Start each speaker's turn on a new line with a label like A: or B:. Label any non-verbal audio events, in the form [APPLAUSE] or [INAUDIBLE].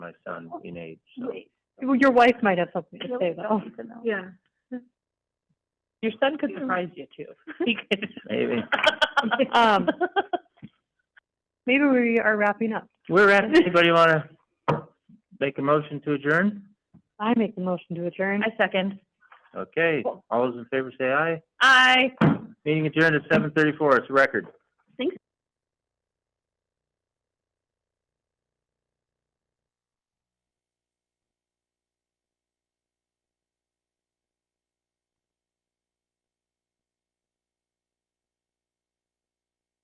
A: my son in age, so.
B: Wait,
C: Well, your wife might have something to
B: really
C: say though.
B: don't need to know.
D: Yeah.
C: [LAUGHS] Your son could surprise you too. [LAUGHS] He could. [LAUGHS]
A: Maybe.
C: Um, Maybe we are wrapping up.
A: We're at, anybody wanna make a motion to adjourn?
C: I make the motion to adjourn.
B: I second.
A: Okay, all those in favor say aye.
B: Aye.
A: Meeting adjourned at seven thirty-four, it's a record.